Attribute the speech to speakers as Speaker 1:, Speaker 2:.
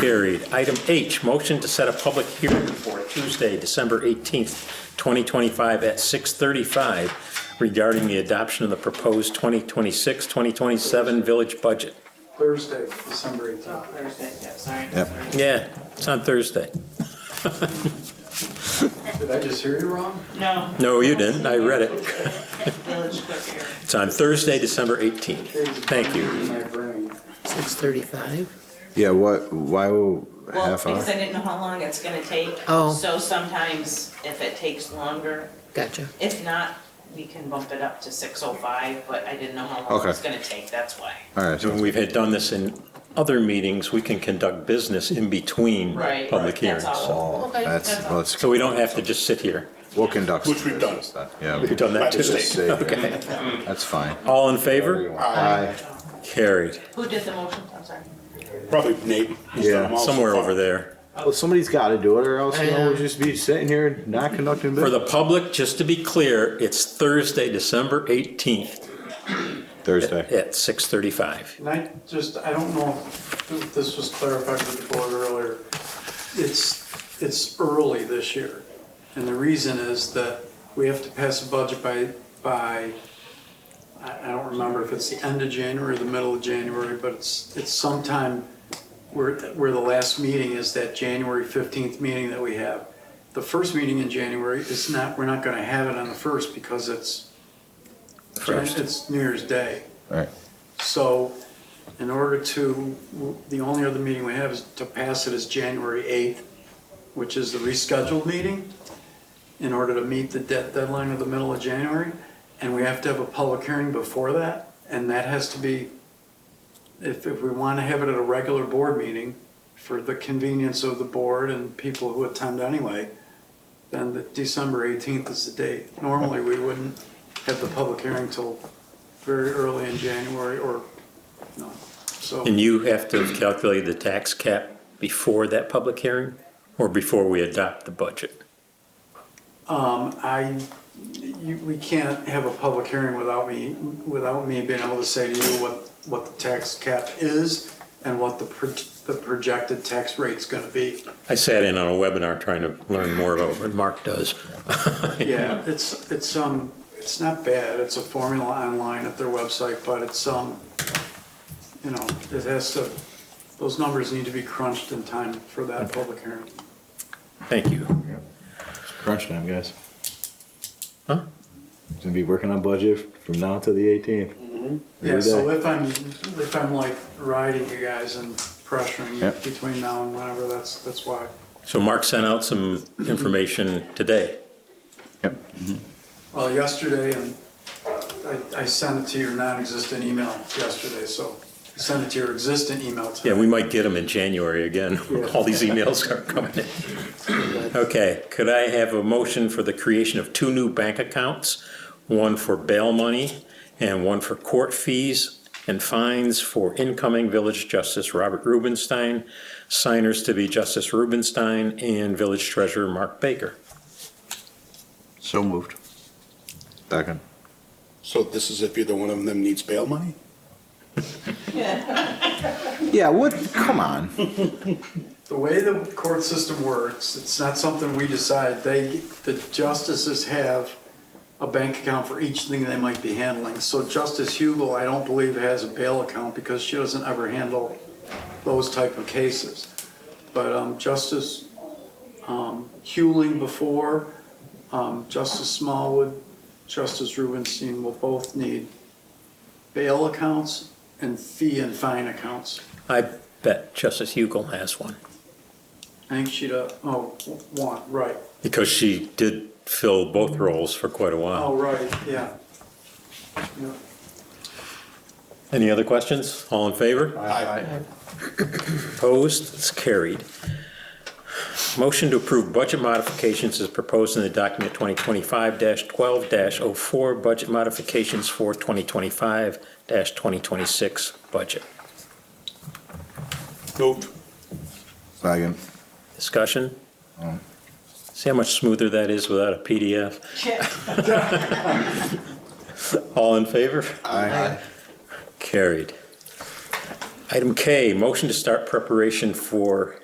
Speaker 1: Carried. Item H, motion to set a public hearing for Tuesday, December 18th, 2025 at 6:35 regarding the adoption of the proposed 2026-2027 village budget.
Speaker 2: Thursday, December 18th.
Speaker 3: Thursday, yeah, sorry.
Speaker 4: Yep.
Speaker 3: sorry.
Speaker 1: Yeah, it's on Thursday.
Speaker 2: Did I just hear you wrong?
Speaker 3: No.
Speaker 1: No, you didn't. I read it.
Speaker 3: Village clerk here.
Speaker 1: It's on Thursday, December 18th. Thank you.
Speaker 2: My brain.
Speaker 5: 6:35?
Speaker 4: Yeah, what, why will
Speaker 3: Well,
Speaker 4: half hour?
Speaker 3: because I didn't know how long it's gonna take.
Speaker 5: Oh.
Speaker 3: So sometimes if it takes longer,
Speaker 5: Gotcha.
Speaker 3: if not, we can bump it up to six oh five, but I didn't know how long
Speaker 4: Okay.
Speaker 3: it's gonna take, that's why.
Speaker 4: All right,
Speaker 1: When
Speaker 4: so
Speaker 1: we've had done this in other meetings, we can conduct business in between
Speaker 3: Right.
Speaker 1: public hearings.
Speaker 3: That's all.
Speaker 4: oh,
Speaker 5: Okay,
Speaker 4: that's,
Speaker 3: that's all.
Speaker 4: let's,
Speaker 1: So we don't have to just sit here.
Speaker 4: we'll conduct.
Speaker 6: Which we've done.
Speaker 4: some business then.
Speaker 1: We've done that
Speaker 6: By
Speaker 1: too.
Speaker 4: Yeah.
Speaker 6: mistake.
Speaker 4: Save it. That's fine.
Speaker 1: All in favor?
Speaker 4: Aye.
Speaker 1: Carried.
Speaker 3: Who did the motion, I'm sorry?
Speaker 6: Probably Nate. He's done
Speaker 4: Yeah,
Speaker 6: them all so
Speaker 1: Somewhere
Speaker 6: far.
Speaker 1: over there.
Speaker 4: Well, somebody's gotta do it or else
Speaker 5: you know, we'll
Speaker 4: just be sitting here not conducting
Speaker 1: For the public, just to be clear, it's Thursday, December 18th
Speaker 4: Thursday.
Speaker 1: at 6:35.
Speaker 2: And I just, I don't know if this was clarified with the board earlier. It's, it's early this year. And the reason is that we have to pass a budget by, by, I I don't remember if it's the end of January or the middle of January, but it's, it's sometime where, where the last meeting is that January 15th meeting that we have. The first meeting in January is not, we're not going to have it on the first because it's,
Speaker 1: First.
Speaker 2: it's New Year's Day.
Speaker 4: All right.
Speaker 2: So in order to, the only other meeting we have is to pass it is January 8th, which is the rescheduled meeting, in order to meet the de- deadline of the middle of January. And we have to have a public hearing before that, and that has to be, if, if we want to have it at a regular board meeting for the convenience of the board and people who attend anyway, then the December 18th is the date. Normally, we wouldn't have the public hearing till very early in January or, no, so.
Speaker 1: And you have to calculate the tax cap before that public hearing or before we adopt the budget?
Speaker 2: Um, I, you, we can't have a public hearing without me, without me being able to say to you what, what the tax cap is and what the, pro- the projected tax rate's gonna be.
Speaker 1: I sat in on a webinar trying to learn more about what Mark does.
Speaker 2: Yeah, it's, it's, um, it's not bad, it's a formula online at their website, but it's, um, you know, it has to, those numbers need to be crunched in time for that public hearing.
Speaker 1: Thank you.
Speaker 4: Crunch time, guys.
Speaker 1: Huh?
Speaker 4: Gonna be working on budget from now to the eighteenth.
Speaker 1: Mm-hmm.
Speaker 2: Yeah, so if I'm, if I'm like riding you guys and pressuring you
Speaker 4: Yep.
Speaker 2: between now and whenever, that's, that's why.
Speaker 1: So Mark sent out some information today.
Speaker 4: Yep.
Speaker 2: Well, yesterday, and I, I sent it to your non-existent email yesterday, so send it to your existent email
Speaker 1: Yeah,
Speaker 2: today.
Speaker 1: we might get them in January again. All these emails are coming in. Okay, could I have a motion for the creation of two new bank accounts? One for bail money and one for court fees and fines for incoming Village Justice Robert Rubenstein, signers to be Justice Rubenstein, and Village Treasurer Mark Baker.
Speaker 4: So moved. Second.
Speaker 6: So this is if either one of them needs bail money?
Speaker 4: Yeah, what, come on.
Speaker 2: The way the court system works, it's not something we decide. They, the justices have a bank account for each thing they might be handling. So Justice Hugel, I don't believe, has a bail account because she doesn't ever handle those type of cases. But um, Justice um, Hewling before, um, Justice Smallwood, Justice Rubenstein will both need bail accounts and fee and fine accounts.
Speaker 1: I bet Justice Hugel has one,
Speaker 2: I think she'd, uh, oh, one, right.
Speaker 1: because she did fill both roles for quite a while.
Speaker 2: Oh, right, yeah. Yeah.
Speaker 1: Any other questions? All in favor? Opposed? It's carried. Motion to approve budget modifications is proposed in the document 2025-12-04, budget modifications for 2025-2026 budget.
Speaker 6: Moved.
Speaker 4: Second.
Speaker 1: Discussion? See how much smoother that is without a PDF?
Speaker 3: Yeah.
Speaker 1: All in favor?
Speaker 4: Aye.
Speaker 1: Carried. Item K, motion to start preparation for